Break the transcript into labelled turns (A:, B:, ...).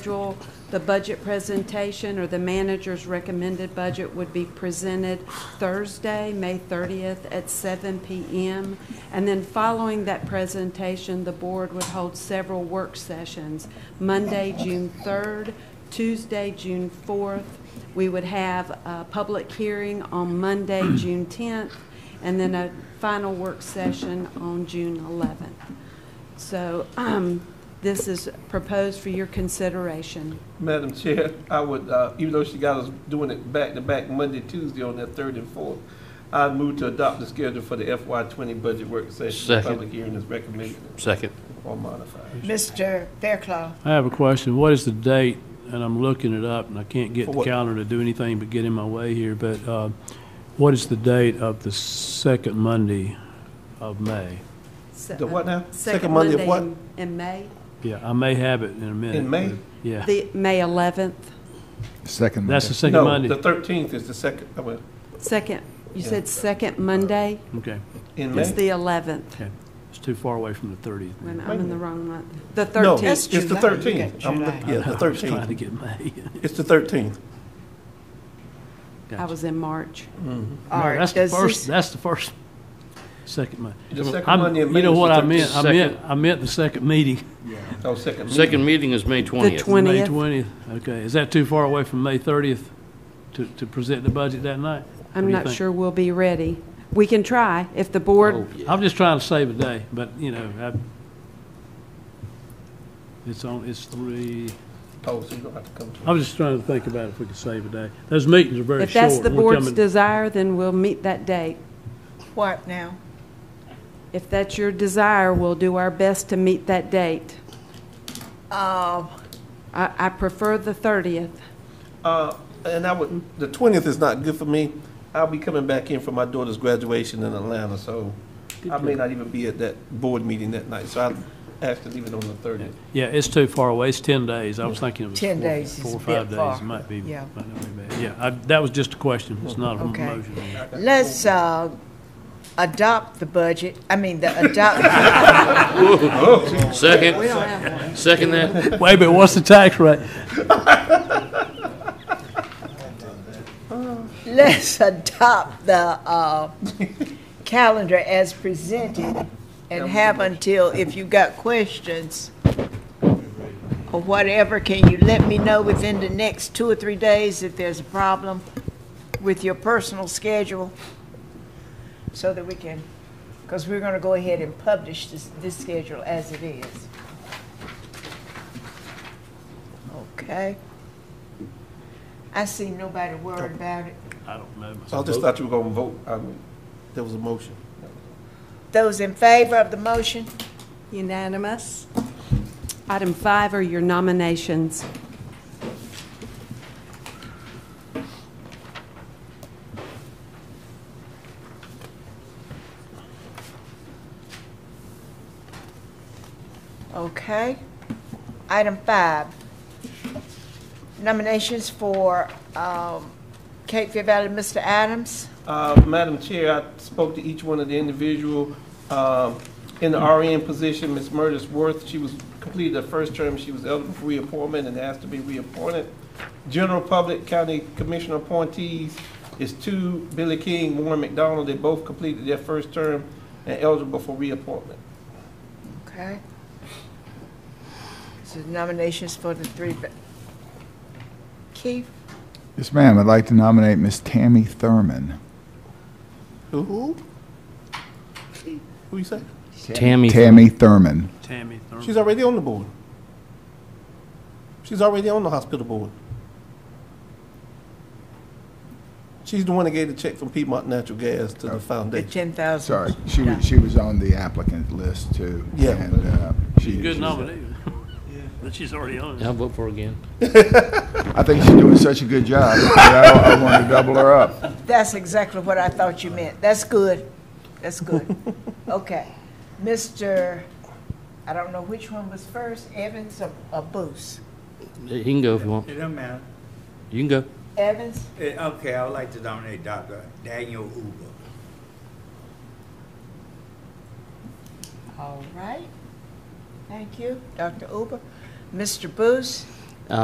A: schedule, the budget presentation or the manager's recommended budget would be presented Thursday, May 30th at 7 PM. And then following that presentation, the board would hold several work sessions. Monday, June 3rd, Tuesday, June 4th. We would have a public hearing on Monday, June 10th, and then a final work session on June 11th. So um, this is proposed for your consideration.
B: Madam Chair, I would, uh, even though she got us doing it back-to-back Monday, Tuesday on that third and fourth, I move to adopt the schedule for the FY twenty budget work session.
C: Second.
B: Public hearing is recommended
C: Second.
B: or modified.
D: Mr. Fairclough,
E: I have a question. What is the date? And I'm looking it up, and I can't get
B: For
E: the
B: what?
E: calendar to do anything but get in my way here, but uh, what is the date of the second Monday of May?
A: Se-
B: The what now?
A: uh, Second Monday
B: of what?
A: in- in May,
E: Yeah, I may have it in a minute.
B: In May?
E: but- Yeah.
A: the, May 11th,
F: Second
E: That's the
F: Monday.
E: second
B: No,
E: Monday?
B: the thirteenth is the second, uh, I mean,
A: second, you
B: Yeah.
A: said second Monday?
E: Okay,
B: in
A: It's
B: May.
A: the 11th.
E: okay. It's too far away from the 30th.
A: Wait a minute,
B: Wait
A: I'm
B: a
A: in the
B: minute.
A: wrong month. The
B: No,
A: 13th.
B: it's
D: That's
B: the
D: July.
B: thirteenth.
D: You got July.
B: Yeah, the
E: I was trying to
B: thirteenth.
E: get May.
B: It's the thirteenth.
A: I
E: Gotcha.
A: was in March.
D: all
E: No,
D: right,
E: That's the
D: does
E: first,
D: this,
E: that's the first, second Monday.
B: The second
E: I'm-
B: Monday in May.
E: You know
B: is the
E: what I
B: 13th.
E: meant? I meant, I meant the second meeting,
B: Oh, second. meeting.
C: Second meeting is May
A: The
C: 20th.
E: May
A: 20th.
E: 20th. Okay, is that too far away from May 30th to, to present the budget that night? What do
A: I'm
E: you
A: not
E: think?
A: sure we'll be ready. We can try if the board,
C: Oh, yeah.
E: I'm just trying to save a day, but, you know, I, it's on, it's three,
B: Oh, so you don't have to come to.
E: I was just trying to think about if we could save a day. Those meetings are very short.
A: if that's the
E: We're
A: board's
E: coming-
A: desire, then we'll meet that date.
D: what now?
A: If that's your desire, we'll do our best to meet that date.
D: Uh,
A: I, I prefer the 30th.
B: Uh, and I would, the twentieth is not good for me. I'll be coming back in for my daughter's graduation in Atlanta, so I may not even be at that board meeting that night, so I asked to leave it on the thirtieth.
E: Yeah, it's too far away. It's 10 days. I was thinking it was
D: 10
E: four-
D: days is
E: Four,
D: a
E: or five
D: bit
E: days.
D: far.
E: It might be,
D: Yeah.
E: might not be bad. Yeah, I, that was just a question. It's not a
D: Okay.
E: motion.
D: Let's uh, adopt the budget, I mean, the adopt,
C: Second, second that?
E: Wait, but what's the tax rate?
D: let's adopt the uh, calendar as presented and have until, if you got questions or whatever, can you let me know within the next two or three days if there's a problem with your personal schedule? So that we can, because we're going to go ahead and publish this, this schedule as it is. Okay. I see nobody worried about it.
E: I don't know.
B: So I just thought you were gonna vote, I mean, there was a motion.
D: Those in favor of the motion?
A: Unanimous. Item five are your nominations.
D: Okay. Item five, nominations for um, Cape Fear Valley, Mr. Adams.
B: Uh, Madam Chair, I spoke to each one of the individual, um, in the RN position, Ms. Murdis Worth, she was, completed her first term, she was eligible for reappointment and asked to be reappointed. General Public County Commissioner appointees is two, Billy King, Warren McDonald, they both completed their first term and eligible for reappointment.
D: Okay. So nominations for the three. va- Keith?
F: Yes, ma'am. I'd like to nominate Miss Tammy Thurman.
B: Who? Who you say?
C: Tammy.
F: Tammy Thurman.
E: Tammy Thurman.
B: She's already on the board. She's already on the hospital board. She's the one that gave the check from Piedmont Natural Gas to the
D: The
B: foundation.
D: 10,000.
F: Sorry, she was, she was on the applicant list too.
B: Yeah.
F: and, uh, she-
E: Good
F: she's-
E: nominee. But she's already on it.
C: I'll vote for her again.
F: I think she's doing such a good job. that I, I want to double her up.
D: That's exactly what I thought you meant. That's good. That's good. Okay. Mr., I don't know which one was first, Evans or- or Booth?
C: You can go if you want.
G: It don't matter.
C: You can go.
D: Evans?
G: Eh, Okay, I would like to nominate Dr. Daniel Uber.
D: All right. Thank you, Dr. Uber. Mr. Booth?